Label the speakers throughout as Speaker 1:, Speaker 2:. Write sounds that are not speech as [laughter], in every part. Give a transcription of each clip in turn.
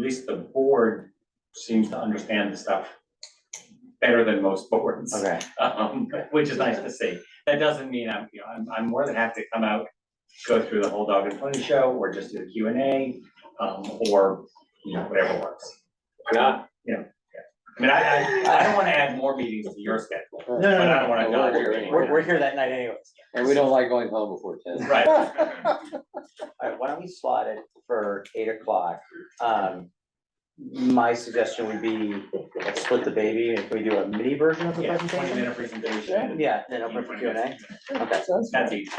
Speaker 1: least the board seems to understand the stuff better than most boards.
Speaker 2: Okay,
Speaker 1: Um, which is nice to see. That doesn't mean I'm, you know, I'm, I'm more than happy to come out, go through the whole dog and pony show, or just do the Q and A, um, or, you know, whatever works.
Speaker 3: Why not?
Speaker 1: I mean, I, I, I don't wanna add more meetings to your schedule,
Speaker 2: no,
Speaker 1: but I
Speaker 2: no,
Speaker 1: don't wanna
Speaker 3: No, we're
Speaker 1: dodge
Speaker 3: here
Speaker 1: your
Speaker 3: anyway.
Speaker 1: meeting.
Speaker 2: we're, we're here that night anyways.
Speaker 3: And we don't like going home before ten.
Speaker 1: Right.
Speaker 2: Alright, why don't we slot it for eight o'clock? Um, my suggestion would be, let's split the baby, and can we do a mini version of the [laughs]
Speaker 1: Yeah, twenty
Speaker 2: presentation?
Speaker 1: minute presentation.
Speaker 2: Yeah, then open for Q and A, okay,
Speaker 1: That's easy.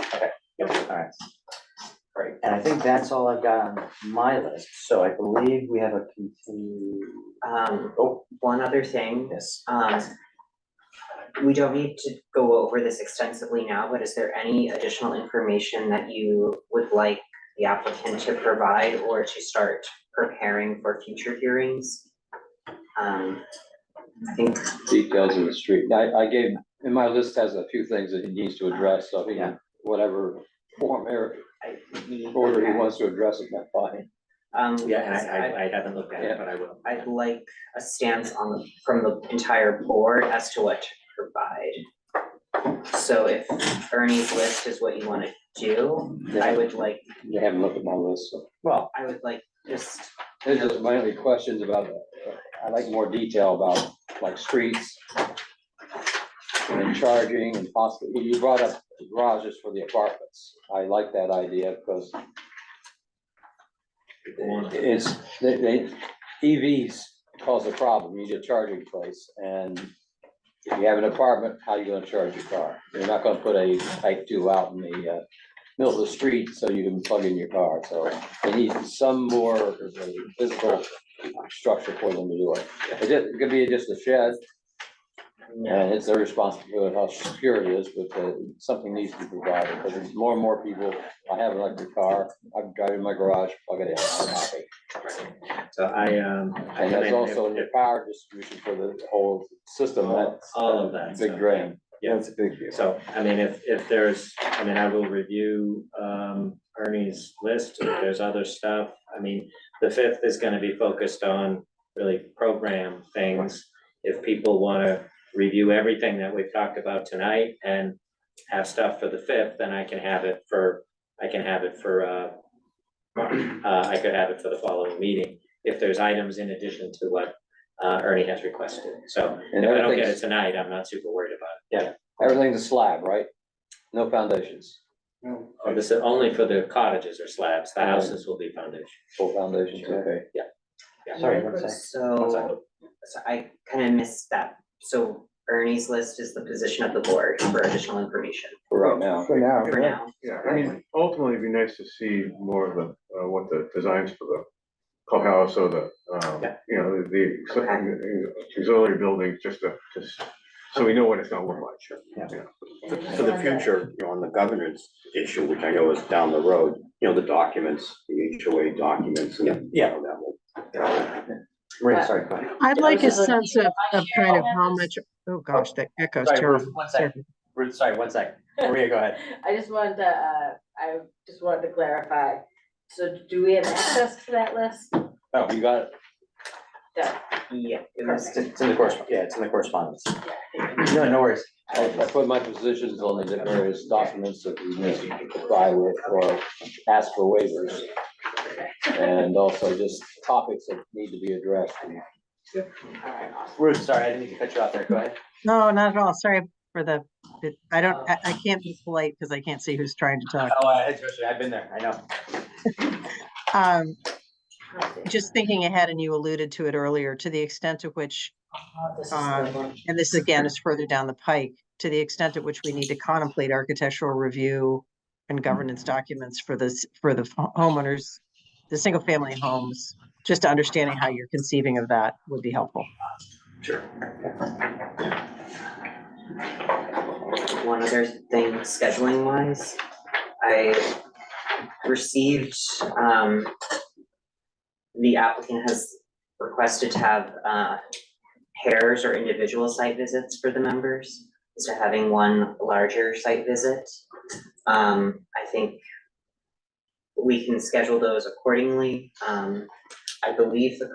Speaker 2: alright. Alright, and I think that's all I've got on my list, so I believe we have a continued,
Speaker 4: Um,
Speaker 2: oh,
Speaker 4: one other thing,
Speaker 2: yes.
Speaker 4: um, we don't need to go over this extensively now, but is there any additional information that you would like the applicant to provide or to start preparing for future hearings? Um, I think,
Speaker 3: Details of the street. I, I gave, and my list has a few things that he needs to address, so he
Speaker 2: Yeah.
Speaker 3: can, whatever form or
Speaker 4: I,
Speaker 3: order he wants to address it, that's fine.
Speaker 4: um,
Speaker 2: I haven't looked
Speaker 3: at it,
Speaker 2: but I will.
Speaker 4: I'd like a stance on, the- from the entire board as to what to provide. So if Ernie's list is what you wanna do, I would like
Speaker 3: They haven't looked at my list, so.
Speaker 2: Well,
Speaker 4: I would like just,
Speaker 3: There's just my only questions about, uh, I like more detail about like streets and charging and possibly, you brought up garages for the apartments. I like that idea because it's, they, they, EVs cause a problem. You need a charging place and if you have an apartment, how you gonna charge your car? You're not gonna put a type two out in the, uh, middle of the street so you can plug in your car, so they need some more physical structure for them to do it. It just- It could be just a shed, and it's their responsibility how secure it is, but uh, something needs to be provided, because there's more and more people, I have an electric car, I'm driving my garage, plug it in, I'm happy.
Speaker 5: So I, um. I
Speaker 3: And there's
Speaker 5: haven't-
Speaker 3: also the power distribution for the whole system, that's
Speaker 5: All of
Speaker 3: a
Speaker 5: that.
Speaker 3: big
Speaker 5: stuff.
Speaker 3: drain.
Speaker 5: Yeah.
Speaker 3: That's a big deal.
Speaker 5: So, I mean, if, if there's, I mean, I will review, um, Ernie's list, if there's other stuff. I mean, the fifth is gonna be focused on really program things. If people wanna review everything that we've talked about tonight and have stuff for the fifth, then I can have it for, I can have it for, uh, uh, I could have it for the following meeting, if there's items in addition to what, uh, Ernie has requested. So if
Speaker 3: And
Speaker 5: I don't get it
Speaker 3: everything's,
Speaker 5: tonight, I'm not super worried about it.
Speaker 3: everything's a slab, right? No foundations,
Speaker 5: Oh, this is only for the cottages or slabs, the houses will be foundation.
Speaker 3: full foundations, okay.
Speaker 2: sorry, one sec. One sec.
Speaker 4: so, so I kind of missed that. So Ernie's list is the position of the board for additional information
Speaker 3: for right now.
Speaker 6: For now.
Speaker 4: for now.
Speaker 6: Yeah, I mean, ultimately, it'd be nice to see more of the, uh, what the designs for the clubhouse or the, um,
Speaker 5: Yeah.
Speaker 6: you know, the auxiliary- auxiliary buildings, just to, just, so we know what it's gonna look like.
Speaker 7: For for the future, you know, on the governance issue, which I know is down the road, you know, the documents, the HOA documents and.
Speaker 2: Yeah,
Speaker 7: you know, that will-
Speaker 2: Maria, sorry, go ahead.
Speaker 8: I'd
Speaker 2: Yeah,
Speaker 8: like a
Speaker 2: this is-
Speaker 8: sense of, of kind of how much, oh gosh, that echoes
Speaker 2: Sorry, Ruth,
Speaker 8: terrible.
Speaker 2: one sec. Ruth, sorry, one sec. Maria, go ahead.
Speaker 9: [laughs] I just wanted to, uh, I just wanted to clarify, so do we have access to that list?
Speaker 3: Oh, you got it.
Speaker 4: Yeah, it was
Speaker 2: It's it's in the correspondence, yeah, it's in the correspondence. No, no worries.
Speaker 3: I I put my positions on the various documents that we need to comply with or ask for waivers. And also just topics that need to be addressed.
Speaker 4: alright, awesome.
Speaker 2: Ruth, sorry, I didn't mean to cut you off there. Go ahead.
Speaker 8: No, not at all. Sorry for the, it- I don't, I, I can't be polite because I can't see who's trying to talk.
Speaker 2: Oh, I- especially, I've been there, I know.
Speaker 8: Um, just thinking ahead and you alluded to it earlier, to the extent to which, um, and this again is further down the pike, to the extent at which we need to contemplate architectural review and governance documents for this, for the homeowners, the single family homes, just understanding how you're conceiving of that would be helpful.
Speaker 4: One other thing, scheduling wise, I received, um, the applicant has requested to have, uh, pairs or individual site visits for the members, instead of having one larger site visit. Um, I think we can schedule those accordingly. Um, I believe the